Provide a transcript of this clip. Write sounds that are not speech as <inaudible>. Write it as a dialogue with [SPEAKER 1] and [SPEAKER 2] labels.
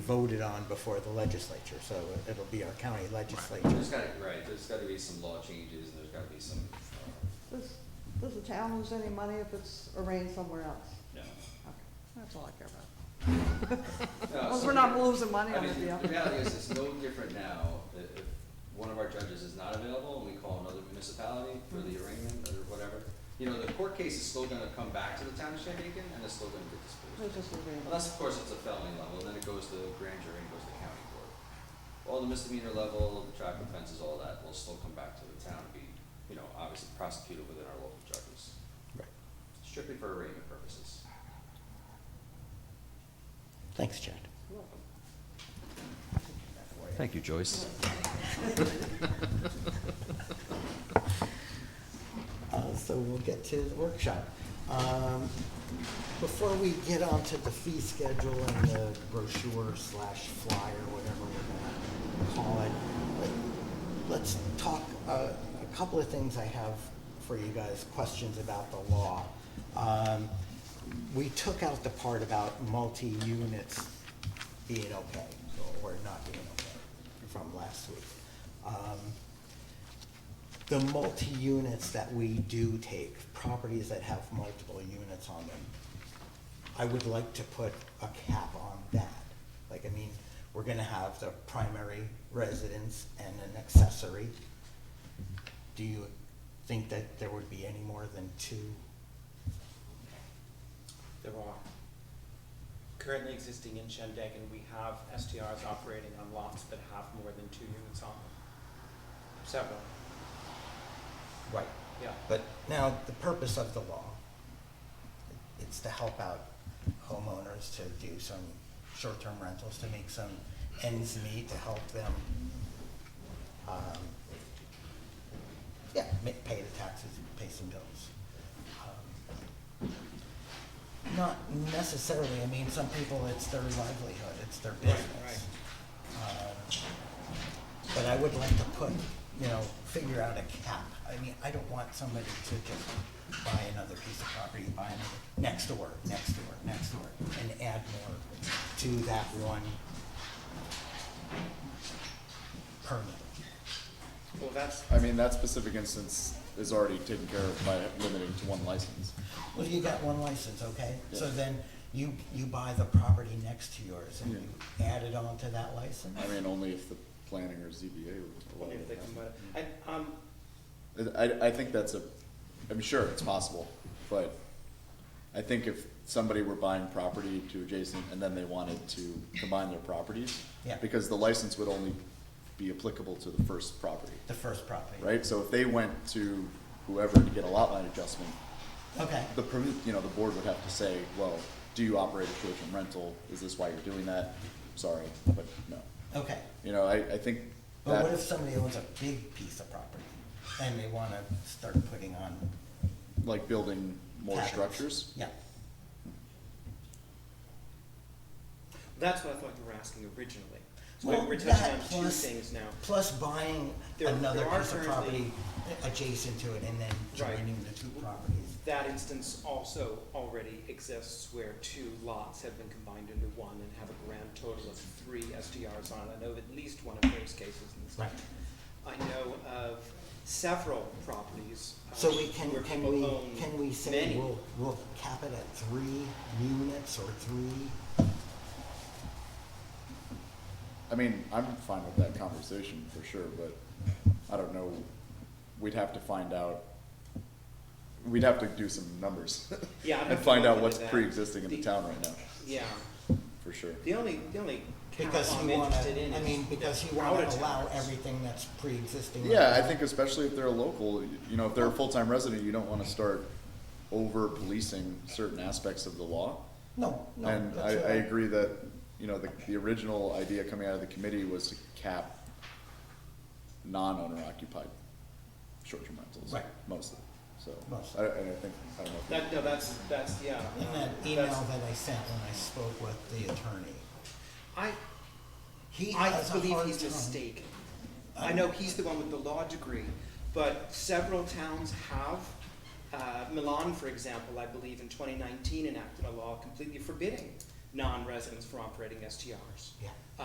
[SPEAKER 1] voted on before the legislature, so it'll be our county legislature.
[SPEAKER 2] There's gotta, right, there's gotta be some law changes, and there's gotta be some, uh,
[SPEAKER 3] Does, does the town lose any money if it's arranged somewhere else?
[SPEAKER 2] no.
[SPEAKER 3] Okay, that's all I care about.
[SPEAKER 2] No,
[SPEAKER 3] As long as
[SPEAKER 2] so-
[SPEAKER 3] we're not losing money
[SPEAKER 2] I
[SPEAKER 3] on the
[SPEAKER 2] mean,
[SPEAKER 3] deal.
[SPEAKER 2] the reality is, it's no different now, that if one of our judges is not available, and we call another municipality for the arraignment or whatever, you know, the court case is still gonna come back to the township Aiken, and it's still gonna get disposed.
[SPEAKER 3] It's just available.
[SPEAKER 2] Unless, of course, it's a felony level, then it goes to grand jury and goes to county court. All the misdemeanor level, the traffic offenses, all that will still come back to the town and be, you know, obviously prosecuted within our local judges,
[SPEAKER 1] Right.
[SPEAKER 2] strictly for arraignment purposes.
[SPEAKER 1] Thanks, Chad.
[SPEAKER 2] Thank you, Joyce.
[SPEAKER 1] Uh, So we'll get to the workshop. Um, Before we get onto the fee schedule and the brochure slash flyer, whatever we're gonna call it, let- let's talk, uh, a couple of things I have for you guys, questions about the law. Um, We took out the part about multi-units being okay, or not being okay, from last week. Um, the multi-units that we do take, properties that have multiple units on them, I would like to put a cap on that. Like, I mean, we're gonna have the primary residence and an accessory. Do you think that there would be any more than two?
[SPEAKER 4] There are currently existing in Shandaken, we have STRs operating on lots that have more than two units on them. Several,
[SPEAKER 1] Right.
[SPEAKER 4] yeah.
[SPEAKER 1] But now, the purpose of the law, it's to help out homeowners to do some short-term rentals, to make some ends meet, to help them, um, yeah, ma- pay the taxes, and pay some bills. Um, Not necessarily, I mean, some people, it's their livelihood, it's their
[SPEAKER 4] Right,
[SPEAKER 1] business. Um, but I would like to put, you know, figure out a cap. I mean, I don't want somebody to just buy another piece of property, buy another, next door, next door, next door, and add more to that one permit.
[SPEAKER 5] Well, that's. I mean, that specific instance is already taken care of by limiting to one license.
[SPEAKER 1] Well, you got one license, okay? So
[SPEAKER 5] Yeah.
[SPEAKER 1] then you, you buy the property next to yours and
[SPEAKER 5] Yeah.
[SPEAKER 1] you add it on to that license?
[SPEAKER 5] I mean, only if the planning or ZBA would allow
[SPEAKER 4] Wonder if they
[SPEAKER 5] it.
[SPEAKER 4] can, but, I, um,
[SPEAKER 5] I, I think that's a, I'm sure it's possible, but I think if somebody were buying property to adjacent and then they wanted to combine their properties.
[SPEAKER 1] Yeah.
[SPEAKER 5] Because the license would only be applicable to the first property,
[SPEAKER 1] The first property?
[SPEAKER 5] right? So if they went to whoever to get a lot line adjustment,
[SPEAKER 1] Okay,
[SPEAKER 5] the, permi- you know, the board would have to say, well, do you operate a short-term rental? Is this why you're doing that? Sorry, but no.
[SPEAKER 1] okay.
[SPEAKER 5] You know, I, I think
[SPEAKER 1] But what
[SPEAKER 5] that,
[SPEAKER 1] if somebody owns a big piece of property and they wanna start putting on
[SPEAKER 5] like building more
[SPEAKER 1] cabins?
[SPEAKER 5] structures,
[SPEAKER 1] Yeah,
[SPEAKER 4] that's what I thought you were asking originally. So
[SPEAKER 1] Well,
[SPEAKER 4] we- we're touching
[SPEAKER 1] that
[SPEAKER 4] on two
[SPEAKER 1] plus-
[SPEAKER 4] things now.
[SPEAKER 1] plus buying
[SPEAKER 4] There-
[SPEAKER 1] another
[SPEAKER 4] there are
[SPEAKER 1] piece of property
[SPEAKER 4] currently-
[SPEAKER 1] adjacent to it and then
[SPEAKER 4] Right.
[SPEAKER 1] joining the two properties.
[SPEAKER 4] That instance also already exists where two lots have been combined into one and have a grand total of three SDRs on it. I know of at least one of those cases in the state. I know of several properties. um,
[SPEAKER 1] So we can,
[SPEAKER 4] where
[SPEAKER 1] can
[SPEAKER 4] people
[SPEAKER 1] we,
[SPEAKER 4] own
[SPEAKER 1] can we say
[SPEAKER 4] many.
[SPEAKER 1] we'll, we'll cap it at three units or three?
[SPEAKER 5] I mean, I'm fine with that conversation for sure, but I don't know, we'd have to find out, we'd have to do some numbers
[SPEAKER 4] Yeah, I'd have
[SPEAKER 5] <laughs> and
[SPEAKER 4] to
[SPEAKER 5] find
[SPEAKER 4] look
[SPEAKER 5] out
[SPEAKER 4] into
[SPEAKER 5] what's
[SPEAKER 4] that.
[SPEAKER 5] pre-existing in the
[SPEAKER 4] The-
[SPEAKER 5] town right now,
[SPEAKER 4] Yeah,
[SPEAKER 5] for sure.
[SPEAKER 4] the only, the only count
[SPEAKER 1] Because
[SPEAKER 4] I'm
[SPEAKER 1] you wanna,
[SPEAKER 4] interested in
[SPEAKER 1] I
[SPEAKER 4] is
[SPEAKER 1] mean, because you
[SPEAKER 4] out
[SPEAKER 1] wanna
[SPEAKER 4] of
[SPEAKER 1] allow
[SPEAKER 4] towns.
[SPEAKER 1] everything that's pre-existing.
[SPEAKER 5] Yeah, I think especially if they're a local, y- you know, if they're a full-time resident, you don't wanna start over policing certain aspects of the law.
[SPEAKER 1] No, no.
[SPEAKER 5] And I, I
[SPEAKER 1] that's all right.
[SPEAKER 5] agree that, you know, the, the original idea coming out of the committee was to cap non-owner occupied short-term rentals.
[SPEAKER 1] Right.
[SPEAKER 5] Mostly, so,
[SPEAKER 1] Mostly.
[SPEAKER 5] I, and I think, I don't know. if we-
[SPEAKER 4] That, no, that's, that's, yeah.
[SPEAKER 1] In that
[SPEAKER 4] that's-
[SPEAKER 1] email that I sent when I spoke with the attorney,
[SPEAKER 4] I,
[SPEAKER 1] he
[SPEAKER 4] I
[SPEAKER 1] has a
[SPEAKER 4] believe
[SPEAKER 1] hard
[SPEAKER 4] he's
[SPEAKER 1] time-
[SPEAKER 4] mistaken. I know he's the one with the law degree, but several towns have, uh, Milan, for example, I believe in twenty nineteen enacted a law completely forbidding non-residents from operating STRs.
[SPEAKER 1] Yeah.